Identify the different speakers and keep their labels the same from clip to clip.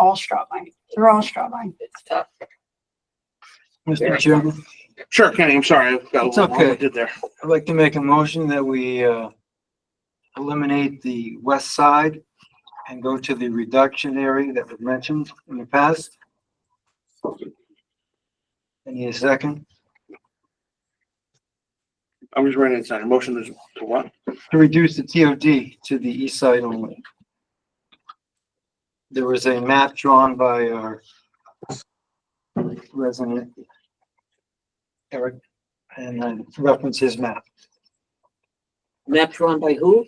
Speaker 1: all straw buying. They're all straw buying.
Speaker 2: It's tough.
Speaker 3: Mr. Chairman,
Speaker 4: Sure, Kenny, I'm sorry, I've got a
Speaker 3: It's
Speaker 4: little long
Speaker 3: okay.
Speaker 4: winded there.
Speaker 3: I'd like to make a motion that we, uh, eliminate the west side and go to the reduction area that was mentioned in the past. I Need a second?
Speaker 4: I'm just running inside, motion is to what?
Speaker 3: To reduce the TOD to the east side only. There was a map drawn by our resident Eric, and I reference his map.
Speaker 2: Map drawn by who?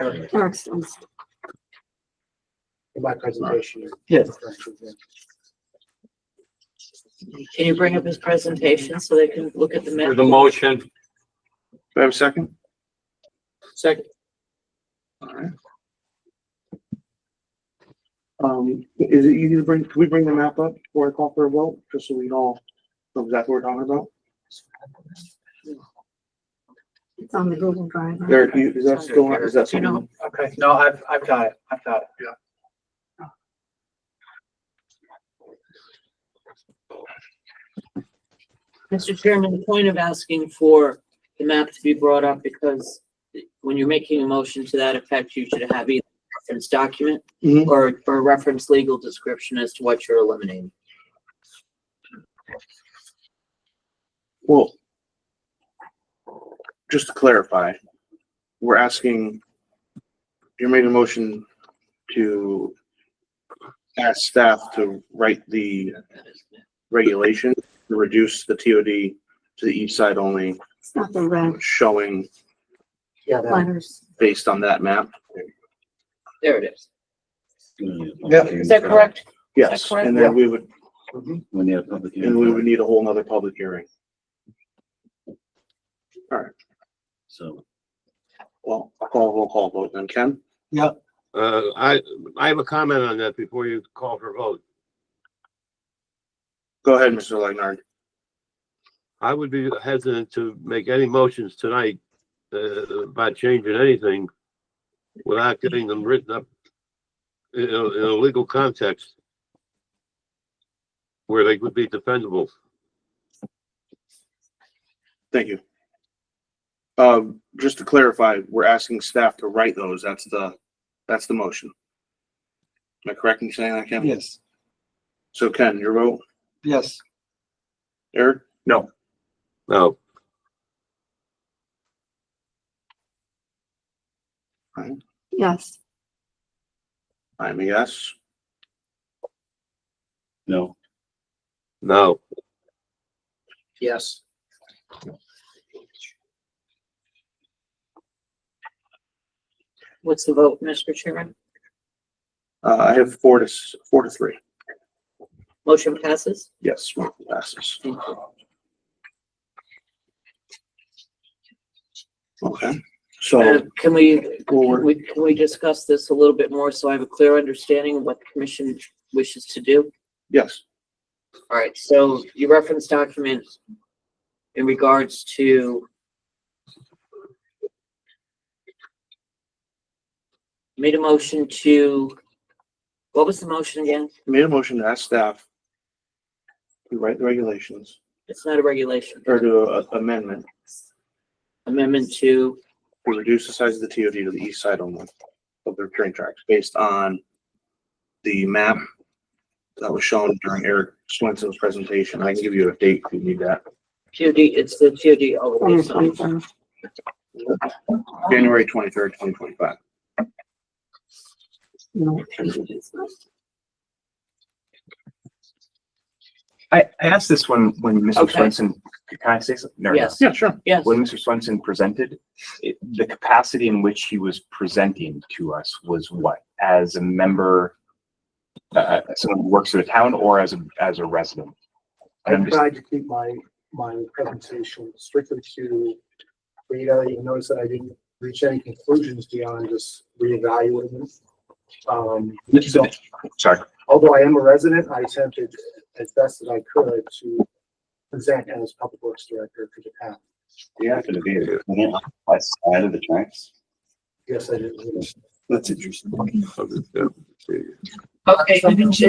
Speaker 3: Eric,
Speaker 1: Eric's- it's-
Speaker 5: in my presentation.
Speaker 3: yes.
Speaker 2: Can you bring up his presentation so they can look at the
Speaker 6: For
Speaker 2: map?
Speaker 6: the motion,
Speaker 4: Do I have a second?
Speaker 2: Second.
Speaker 4: Alright. Um, is it easy to bring, can we bring the map up before I call for a vote, just so we all know exactly what we're talking about?
Speaker 1: It's on the Google Drive. right?
Speaker 4: Eric, you- is that still, is that
Speaker 2: You know,
Speaker 4: something?
Speaker 5: Okay, no, I've, I've got it, I've got it.
Speaker 2: Mr. Chairman, the point of asking for the map to be brought up because when you're making a motion to that effect, you should have either a reference document
Speaker 4: Mhm.
Speaker 6: Mm-hmm.
Speaker 2: or, or reference legal description as to what you're eliminating.
Speaker 4: Well, just to clarify, we're asking, you're making a motion to ask staff to write the regulation to reduce the TOD to the east side only,
Speaker 1: It's not the red
Speaker 4: showing
Speaker 5: Yeah, that-
Speaker 1: letters.
Speaker 4: based on that map.
Speaker 2: There it is.
Speaker 5: Yeah.
Speaker 2: Is that correct?
Speaker 4: Yes,
Speaker 2: correct?
Speaker 4: and then we would,
Speaker 6: when you have public
Speaker 4: and we would need a whole nother public hearing.
Speaker 6: so.
Speaker 4: Well, I'll call, we'll call vote then. Ken?
Speaker 7: Uh, I, I have a comment on that before you call for vote.
Speaker 4: Go ahead, Mr. Legnard.
Speaker 7: I would be hesitant to make any motions tonight, uh, about changing anything without getting them written up in a, in a legal context where they would be defendable.
Speaker 4: Thank you. Um, just to clarify, we're asking staff to write those. That's the, that's the motion. Am I correct in saying that, Ken?
Speaker 3: Yes,
Speaker 4: So Ken, your vote?
Speaker 3: yes.
Speaker 4: Eric?
Speaker 7: No,
Speaker 1: Yes.
Speaker 4: I'm a yes.
Speaker 6: No.
Speaker 7: no.
Speaker 5: Yes.
Speaker 2: What's the vote, Mr. Chairman?
Speaker 4: Uh, I have four to, s- four to three.
Speaker 2: Motion passes?
Speaker 4: Yes, motion passes.
Speaker 6: Oh.
Speaker 4: Okay,
Speaker 2: Uh,
Speaker 4: so
Speaker 2: Can we,
Speaker 4: we'll-
Speaker 2: we, can we discuss this a little bit more so I have a clear understanding of what the commission wishes to do?
Speaker 4: yes,
Speaker 2: All right, so your reference document in regards to made a motion to, what was the motion again?
Speaker 4: made a motion to ask staff to write the regulations
Speaker 2: It's not a regulation,
Speaker 4: or to a- amendment
Speaker 2: amendment to,
Speaker 4: to reduce the size of the TOD to the east side only of the train tracks based on the map that was shown during Eric Swenson's presentation. I can give you a date if you need that.
Speaker 2: TOD, it's the TOD
Speaker 1: On
Speaker 2: overlay
Speaker 1: the
Speaker 2: zone.
Speaker 1: 23rd.
Speaker 4: January twenty-third, twenty twenty-five.
Speaker 1: No, it's not.
Speaker 8: I, I asked this when, when Mr.
Speaker 2: Okay.
Speaker 8: Swenson, can I say something? No, no.
Speaker 2: Yes,
Speaker 4: Yeah, sure.
Speaker 2: yes.
Speaker 8: When Mr. Swenson presented, it- the capacity in which he was presenting to us was what? As a member, uh, someone who works for the town or as a, as a resident?
Speaker 5: I
Speaker 8: And I'm just-
Speaker 5: tried to keep my, my presentation strictly to data. You notice that I didn't reach any conclusions beyond just reevaluating. Um, so
Speaker 8: Sorry,
Speaker 5: although I am a resident, I attempted as best as I could to present as public works director for the town.
Speaker 6: You have to be, west side of the tracks.
Speaker 5: Yes, I did.
Speaker 6: That's interesting.
Speaker 2: Okay,